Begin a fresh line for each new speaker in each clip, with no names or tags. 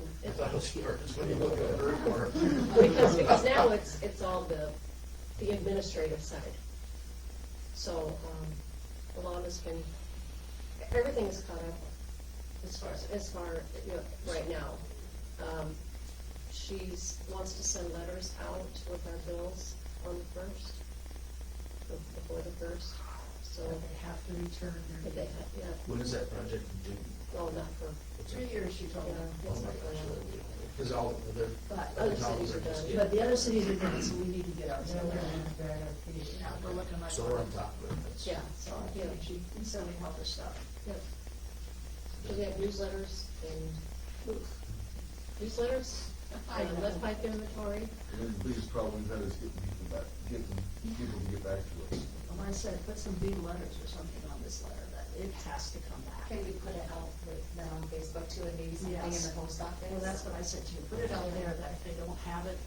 thought it was yours when you look at the report.
Because, because now it's, it's all the, the administrative side. So, um, the law has been, everything is caught up as far, as- as far, you know, right now. Um, She's, wants to send letters out with our bills on the first, before the first, so,
So they have to return their.
but they, have- yeah,
When is that project due? Oh
well, not for,
Three years, she told
yeah,
them.
it's not for-
Because all, they're,
But,
Other cities are done.
but the other cities are done, so we need to get ours.
They're
done.
looking at that, I think.
Yeah, we're looking like.
so we're on top of it. That's-
yeah,
So, yeah, she, we send me help her stuff.
Yep. So they have newsletters and newsletters, and lead pipe inventory.
And then the biggest problem we've had is getting people back, getting people to get back to us.
And I said, put some big letters or something on this letter, that it has to come back.
Can we put it out with,
um,
then on Facebook too, and maybe something in
Yes.
the post office?
Well, that's what I said to you, put it out there, that if they don't have it.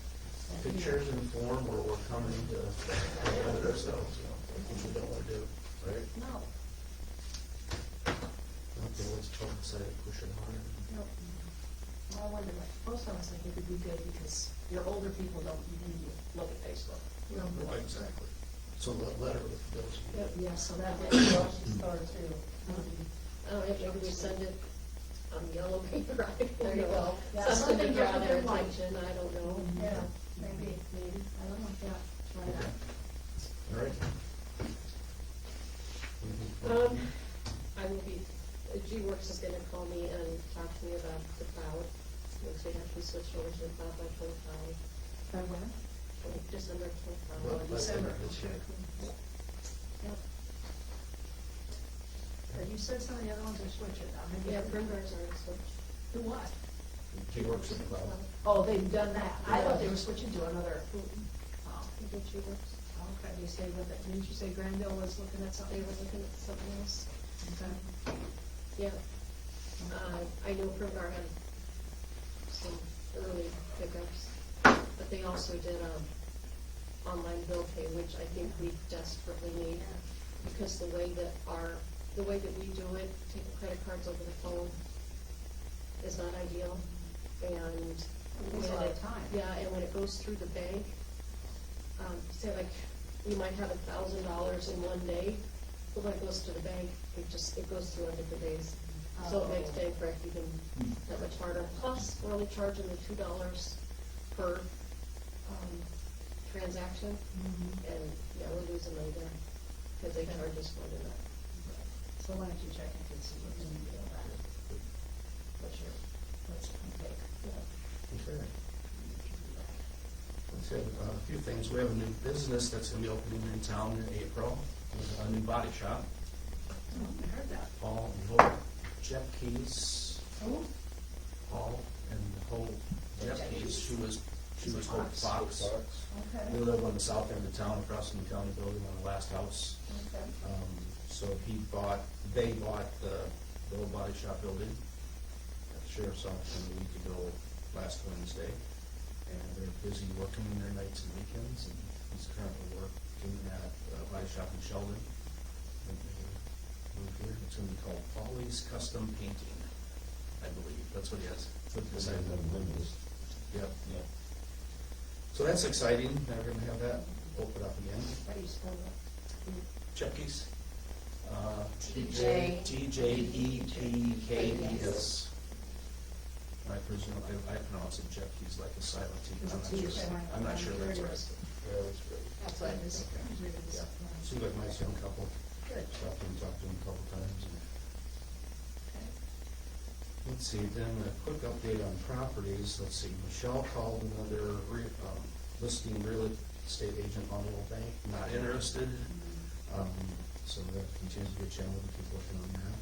then here.
Pictures in form where we're coming to, to ourselves, you know, which we don't want to do, right?
No,
Okay, let's try and say, push it harder.
no. Well, I wonder, like, post office, I think it'd be good, because your older people don't even look at Facebook.
Right, Exactly. So let, letter with those.
Yeah, so that way,
I don't have to, we send it on yellow paper, I don't
There you
know.
go.
Yeah,
Something to
something
draw
different
their
than white.
attention, I don't know.
Yeah, maybe.
maybe, I don't know, yeah, try
Okay.
that.
All right. Mm-hmm.
Um, I will be, uh, G-Works is gonna call me and talk to me about the cloud, which they have to switch over to the cloud by twenty-five,
By when?
twenty- December
Well,
twenty-five.
let's-
December.
let's check.
Yep. But you said some of the other ones are switching now, maybe.
Yeah, primers are switched.
To what?
He works in the cloud.
Oh, they've done that, I thought they were switching to another, oh,
I think G-Works,
okay, you say, what, the- didn't you say Granville was looking at
they
something?
were looking at something else.
Okay.
Yeah. Uh, I know Primgar had some early pickups, but they also did, um, online bill pay, which I think we desperately need. Because the way that our, the way that we do it, taking credit cards over the phone is not ideal. And.
Takes a lot of time.
Yeah, and when it goes through the bank, um, say like, you might have a thousand dollars in one day, but when it goes to the bank, it just, it goes through on different days. So it makes bank rec even that much harder, plus we're only charging the two dollars per, um, transaction,
Mhm.
and, yeah, we're losing money there, because they charge us more than that.
So why don't you check and see what you need to do about it? What's your, what's your take?
Okay. Let's have uh, a few things. We have a new business that's gonna be opening in town in April, a new body shop.
Oh, I heard that.
Paul and Hope, Jeff Keys,
Oh.
Paul and Hope, Jeff Keys, she was, she was Hope
Fox.
Fox. They
Okay,
live on the south end of town, across from the county building on the last house.
okay.
Um, So he bought, they bought the, the old body shop building at the sheriff's office a week ago, last Wednesday. And they're busy working their nights and weekends, and he's currently working at a body shop in Sheldon. And they moved here. It's gonna be called Polly's Custom Painting, I believe, that's what he has.
Because I have no windows.
Yep,
Yeah.
so that's exciting, they're gonna have that open up again.
How do you spell that?
Chuckies.
TJ.
Uh, T J E P K E S. I presume, I, I pronounce it Chuckies like a silent T, but I'm not
It's a
sure,
T,
I'm not sure
right.
that's right.
Yeah, that's great.
That's what I was, usually
Yeah,
this.
seems like a nice young couple,
Good,
talked to him, talked to him a couple times.
okay.
Let's see, then a quick update on properties, let's see, Michelle called another re, um, listing real estate agent on Old Bank, not interested. Um, so we have to continue to get channel to keep working on that.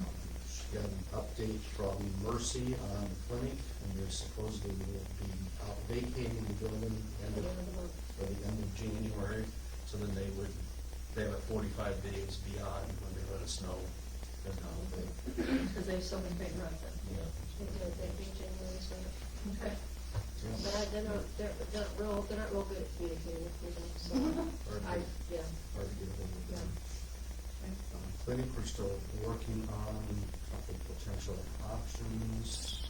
Um, She got an update from Mercy on the clinic, and they're supposedly will be out vacating the building end of, by the end of January. So then they would, they have it forty-five days beyond when they let us know they're not available.
Because they have so many big runs
Yeah.
They do it, they do January, so,
in. Okay.
but I, they're not, they're, they're not real, they're not real good at communicating with people, so,
Hard
I,
to-
yeah,
hard to get ahold of them.
Okay.
Um, Clinic, we're still working on a couple potential options.